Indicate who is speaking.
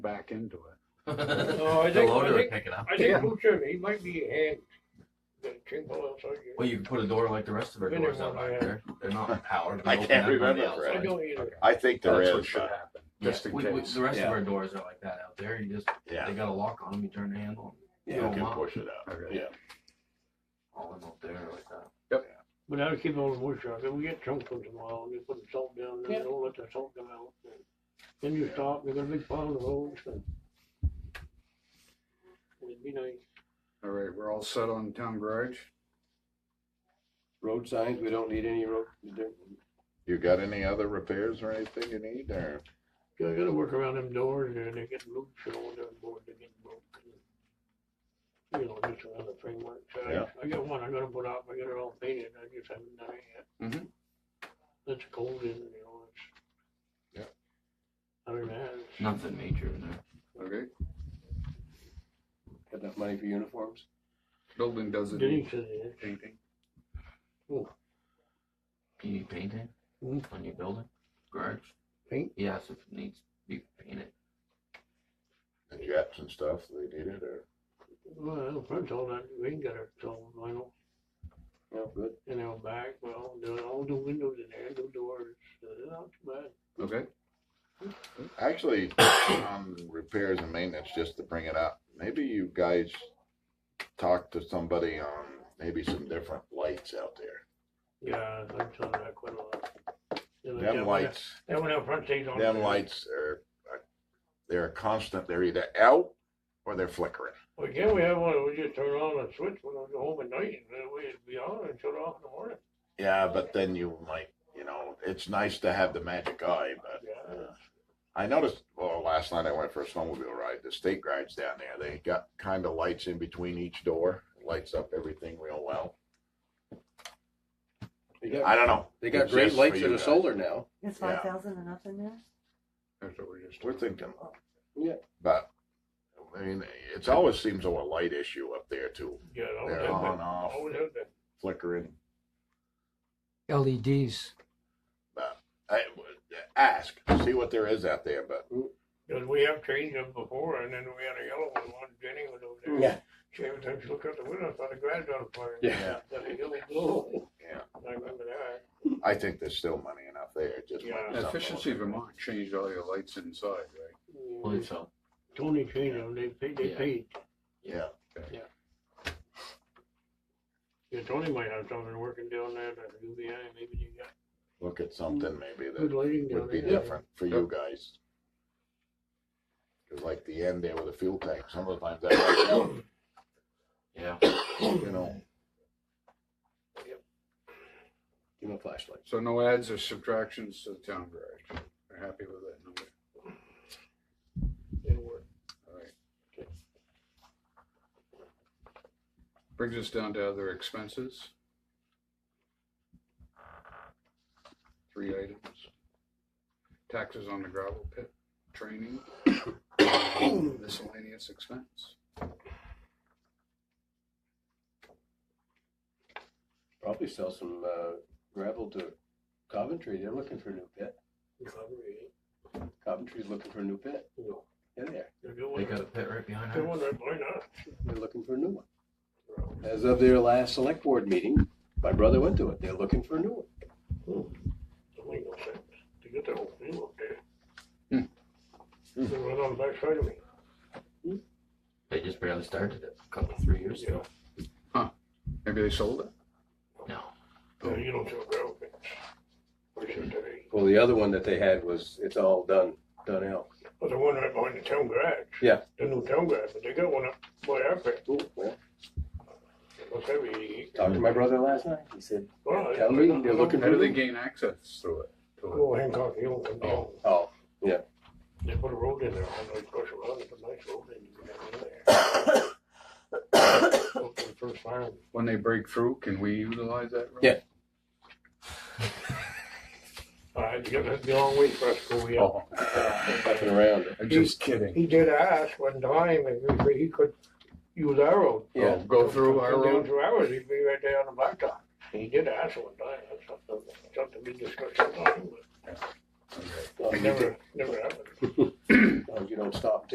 Speaker 1: back into it.
Speaker 2: No, Oh, I
Speaker 3: the
Speaker 2: think-
Speaker 3: loader
Speaker 2: I
Speaker 3: would
Speaker 2: think-
Speaker 3: pick it up.
Speaker 2: I
Speaker 1: Yeah.
Speaker 2: think Butcher, he might be a hand. The tinkle outside your-
Speaker 3: Well, you can put a door like the rest of our
Speaker 2: Been there
Speaker 3: doors out
Speaker 2: one,
Speaker 3: back
Speaker 2: yeah.
Speaker 3: there. They're not powered.
Speaker 4: I
Speaker 3: They open
Speaker 4: can't
Speaker 3: up on the
Speaker 4: remember,
Speaker 3: outside.
Speaker 2: I
Speaker 4: Fred.
Speaker 2: don't either.
Speaker 4: I think there
Speaker 1: That's what
Speaker 4: is.
Speaker 1: should
Speaker 4: but-
Speaker 1: happen,
Speaker 3: Yeah,
Speaker 1: just in
Speaker 3: we- we-
Speaker 1: case.
Speaker 3: the rest
Speaker 4: Yeah.
Speaker 3: of our doors are like that out there. You just they
Speaker 4: Yeah,
Speaker 3: got a lock on them. You turn the handle.
Speaker 4: you
Speaker 3: Oh,
Speaker 4: can
Speaker 3: wow.
Speaker 4: push it out.
Speaker 1: Okay.
Speaker 4: Yeah,
Speaker 3: All them up there like that.
Speaker 2: But I would keep all the wood shock, and we get chunks once in a while, and you put the salt down, and don't let the salt come out. and Then you stop, you got a big pile of those, and. It'd be nice.
Speaker 1: All right, we're all set on town garage?
Speaker 5: Road signs, we don't need any road,
Speaker 4: you got any other repairs or anything you need or?
Speaker 2: Yeah, I gotta work around them doors, and they get loose, and all the boards are getting broke. and, You know, just another framework, so
Speaker 4: Yeah.
Speaker 2: I, I got one, I gotta put up, I got it all painted, I just haven't done it yet.
Speaker 4: Mhm.
Speaker 2: That's cold in, you know, it's.
Speaker 4: Yeah.
Speaker 2: Other than that, it's-
Speaker 3: Nothing major in there.
Speaker 1: Okay,
Speaker 5: got enough money for uniforms?
Speaker 1: building doesn't
Speaker 2: Denise
Speaker 1: need
Speaker 2: said it.
Speaker 1: painting.
Speaker 3: You need painting
Speaker 4: Mm.
Speaker 2: Mhm.
Speaker 3: on your building, garage.
Speaker 2: Paint?
Speaker 3: Yes, if it needs to be painted.
Speaker 4: The jets and stuff they needed or?
Speaker 2: Well, first all that, we ain't got it all vinyl,
Speaker 5: No, good.
Speaker 2: and they'll back, well, do all the windows in there, the doors, uh, not too bad.
Speaker 1: Okay,
Speaker 4: Actually, on repairs and maintenance, just to bring it up, maybe you guys talk to somebody on maybe some different lights out there.
Speaker 2: Yeah, I've done that quite a lot. And I got
Speaker 4: Them
Speaker 2: one-
Speaker 4: lights,
Speaker 2: That one out front stays on.
Speaker 4: them lights are, uh, they're a constant, they're either out or they're flickering.
Speaker 2: Well, yeah, we have one, that we just turn on and switch when I go home at night, and then we'd be on and shut off in the morning.
Speaker 4: Yeah, but then you might, you know, it's nice to have the magic eye, but uh, I noticed, well, last night I went for a snowmobile ride, the state rides down there, they got kind of lights in between each door, lights up everything real well.
Speaker 5: They got,
Speaker 4: I don't know.
Speaker 5: they got
Speaker 4: It's
Speaker 5: great
Speaker 4: just for
Speaker 5: lights
Speaker 4: you
Speaker 5: that are
Speaker 4: guys.
Speaker 5: solar now.
Speaker 6: It's
Speaker 4: Yeah.
Speaker 6: five thousand and up in there?
Speaker 1: that's what we just.
Speaker 4: We're thinking.
Speaker 5: Yeah.
Speaker 4: But, I mean, it's always seems a light issue up there too,
Speaker 2: Oh, Yeah, I always
Speaker 4: They're
Speaker 2: have
Speaker 4: on,
Speaker 2: that.
Speaker 4: off.
Speaker 2: Always have that.
Speaker 4: flickering.
Speaker 7: LEDs.
Speaker 4: I, ask, see what there is out there, but
Speaker 2: Cause we have changed them before, and then we had a yellow one, one Jenny was over there. She every time she looked out the window, I thought the grass was on fire.
Speaker 5: Yeah.
Speaker 2: That was yellow glow.
Speaker 4: Yeah.
Speaker 2: I remember that.
Speaker 4: I think there's still money enough there, it just. might
Speaker 2: Yeah.
Speaker 4: be something
Speaker 1: Efficiency
Speaker 4: a little
Speaker 1: Vermont changed all your lights inside, right?
Speaker 3: Believe so.
Speaker 2: Tony changed them, they paid, they
Speaker 3: Yeah.
Speaker 2: paid.
Speaker 4: Yeah,
Speaker 2: Yeah, Tony might have something working down there, that UBI, maybe you got
Speaker 4: look at something maybe
Speaker 2: good
Speaker 4: that
Speaker 2: lighting down
Speaker 4: would be
Speaker 2: there.
Speaker 4: different for you
Speaker 1: Yep.
Speaker 4: guys. 'Cause like the end there with the fuel tank, some of the times that,
Speaker 3: Yeah.
Speaker 4: you know,
Speaker 5: Give them a flashlight.
Speaker 1: So no adds or subtractions to the town garage. We're happy with that number.
Speaker 2: It'll work.
Speaker 1: All right. Brings us down to other expenses. Three items. Taxes on the gravel pit, training, miscellaneous expense.
Speaker 5: Probably sell some, uh, gravel to Coventry. They're looking for a new pit.
Speaker 2: Recovery,
Speaker 5: Coventry's looking for a new pit.
Speaker 2: no.
Speaker 5: Yeah, they are.
Speaker 2: They're doing
Speaker 3: They
Speaker 2: it.
Speaker 3: got a pit right behind
Speaker 2: They're
Speaker 3: us.
Speaker 2: wondering, why not?
Speaker 5: They're looking for a new one.
Speaker 2: Well,
Speaker 5: As of their last select board meeting, my brother went to it. They're looking for a new one.
Speaker 2: Don't make no sense. They got that whole thing up there.
Speaker 1: Hmm.
Speaker 2: They
Speaker 5: Hmm.
Speaker 2: went on the backside of me.
Speaker 3: They just barely started it a couple three years ago.
Speaker 1: Maybe they sold it?
Speaker 3: No.
Speaker 5: Oh.
Speaker 2: Yeah, you don't sell gravel pits. Or should they?
Speaker 5: Well, the other one that they had was, it's all done, done out.
Speaker 2: Well, the one right behind the town garage.
Speaker 5: Yeah.
Speaker 2: The new town garage, but they got one up by our pit.
Speaker 5: Cool, well,
Speaker 2: Looks heavy.
Speaker 5: talked to my brother last night. He said,
Speaker 2: Well,
Speaker 5: Tell me, they're looking
Speaker 1: How do they gain access through it? To
Speaker 2: Go Hancock Hill and come down.
Speaker 5: oh,
Speaker 2: They put a road in there, I know it's special road, it's a nice road and you can get in there. Up to the first farm.
Speaker 1: it? When they break through, can we utilize that? road?
Speaker 5: Yeah.
Speaker 2: All right, you gotta be a long way for us to go yet.
Speaker 1: Oh,
Speaker 5: up and around.
Speaker 1: I'm just kidding.
Speaker 2: He did ask one time if he- he could use our road.
Speaker 5: Yeah.
Speaker 1: Oh, Go through our
Speaker 2: Come down
Speaker 1: road?
Speaker 2: through ours, he'd be right there on the blacktop. He did ask one time, that's something, something we discussed sometime,
Speaker 1: Okay.
Speaker 5: Oh.
Speaker 2: but never, never happened.
Speaker 5: As long as you don't stop